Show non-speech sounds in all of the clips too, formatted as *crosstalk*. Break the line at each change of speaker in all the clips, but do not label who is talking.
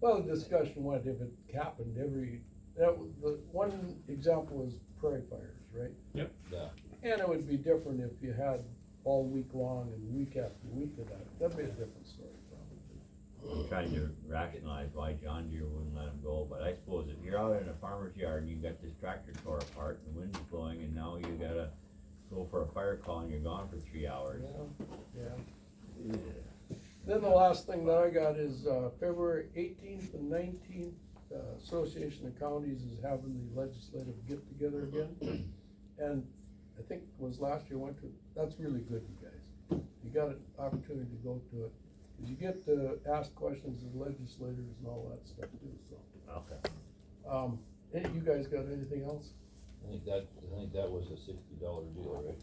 Well, the discussion went, if it happened every, that, was- the one example was prairie fires, right?
Yep.
Yeah.
And it would be different if you had all week long and week after week of that, that'd be a different story probably.
I'm trying to rationalize why John Deere wouldn't let him go, but I suppose if you're out in a farmer's yard and you got this tractor tore apart and the wind is blowing and now you gotta go for a fire call and you're gone for three hours.
Yeah, yeah. Then the last thing that I got is, uh, February eighteenth and nineteenth, uh, Association of Counties is having the legislative get-together again. And I think was last year went to, that's really good, you guys. You got an opportunity to go to it, cause you get to ask questions of legislators and all that stuff too, so.
Okay.
Um, hey, you guys got anything else?
I think that, I think that was a sixty dollar deal, right?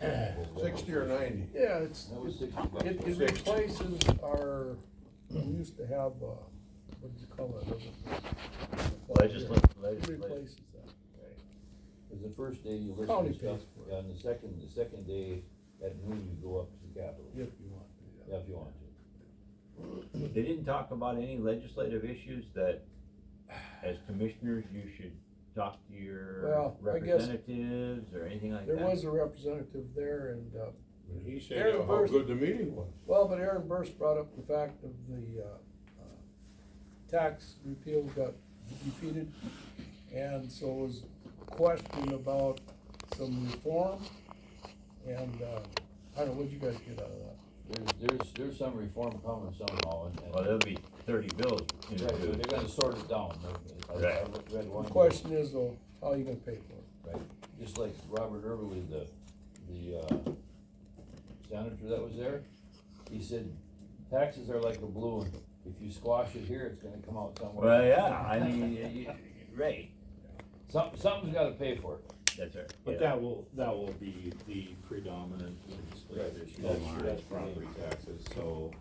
*clears throat* Sixty or ninety?
Yeah, it's,
That was sixty bucks.
It, it replaces our, we used to have, uh, what do you call it?
Legislative,
It
legislative.
Replaces that.
Cause the first day you listen
County
to stuff,
pays for it.
yeah, and the second, the second day, at noon you go up to the Capitol,
If you want to, yeah.
yeah, if you want to.
They didn't talk about any legislative issues that, as commissioners, you should talk to your
Well, I guess-
representatives or anything like that?
There was a representative there and, uh,
And he said
Aaron
how
Burst-
good the meeting was.
well, but Aaron Burst brought up the fact of the, uh, uh, tax repeal got defeated. And so it was a question about some reform and, uh, I don't know, what'd you guys get out of that?
There's, there's, there's some reform coming somehow, and, and.
Well, there'll be thirty bills in
Right, but they're gonna sort it down, I, I I
Right.
read one.
The question is, though, how are you gonna pay for it?
Right, just like Robert Irwin, the, the, uh, senator that was there, he said, taxes are like a balloon. If you squash it here, it's gonna come out somewhere.
Well, yeah, I mean, y- y- right,
Some, something's gotta pay for it.
that's right.
But
yeah.
that will, that will be the predominant legislative
Right.
issue.
That's- that's
property taxes, so